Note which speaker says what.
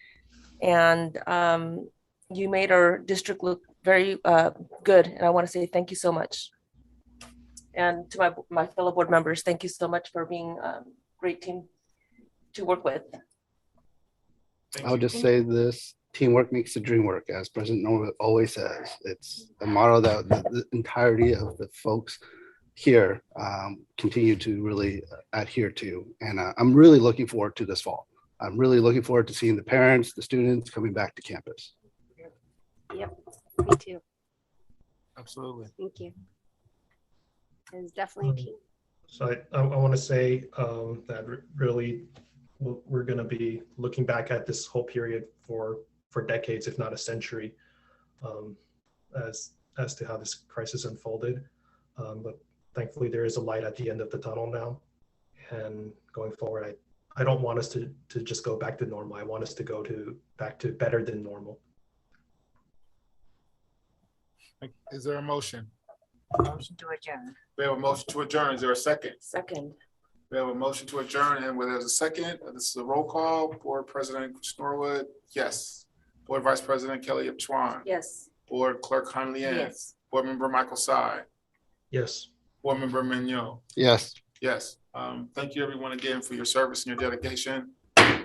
Speaker 1: And um, you made our district look very uh, good, and I want to say thank you so much. And to my, my fellow board members, thank you so much for being a great team to work with.
Speaker 2: I'll just say this, teamwork makes the dream work, as President Norwood always says. It's a motto that the the entirety of the folks here um, continue to really adhere to. And uh, I'm really looking forward to this fall. I'm really looking forward to seeing the parents, the students coming back to campus.
Speaker 3: Me too.
Speaker 4: Absolutely.
Speaker 3: Thank you. It's definitely a team.
Speaker 5: So I, I want to say um, that re- really, w- we're going to be looking back at this whole period for for decades, if not a century, um, as as to how this crisis unfolded. Um, but thankfully, there is a light at the end of the tunnel now, and going forward, I I don't want us to to just go back to normal. I want us to go to back to better than normal.
Speaker 4: Is there a motion?
Speaker 6: Motion to adjourn.
Speaker 4: We have a motion to adjourn. Is there a second?
Speaker 1: Second,
Speaker 4: We have a motion to adjourn and where there's a second, this is a roll call. Board President Snorwood, yes. Board Vice President Kelly Chuan.
Speaker 1: yes.
Speaker 4: Board Clerk Han Liang.
Speaker 1: Yes.
Speaker 4: Board Member Michael Sy.
Speaker 5: Yes.
Speaker 4: Board Member Mignon.
Speaker 2: Yes,
Speaker 4: Yes. Um, thank you everyone again for your service and your dedication.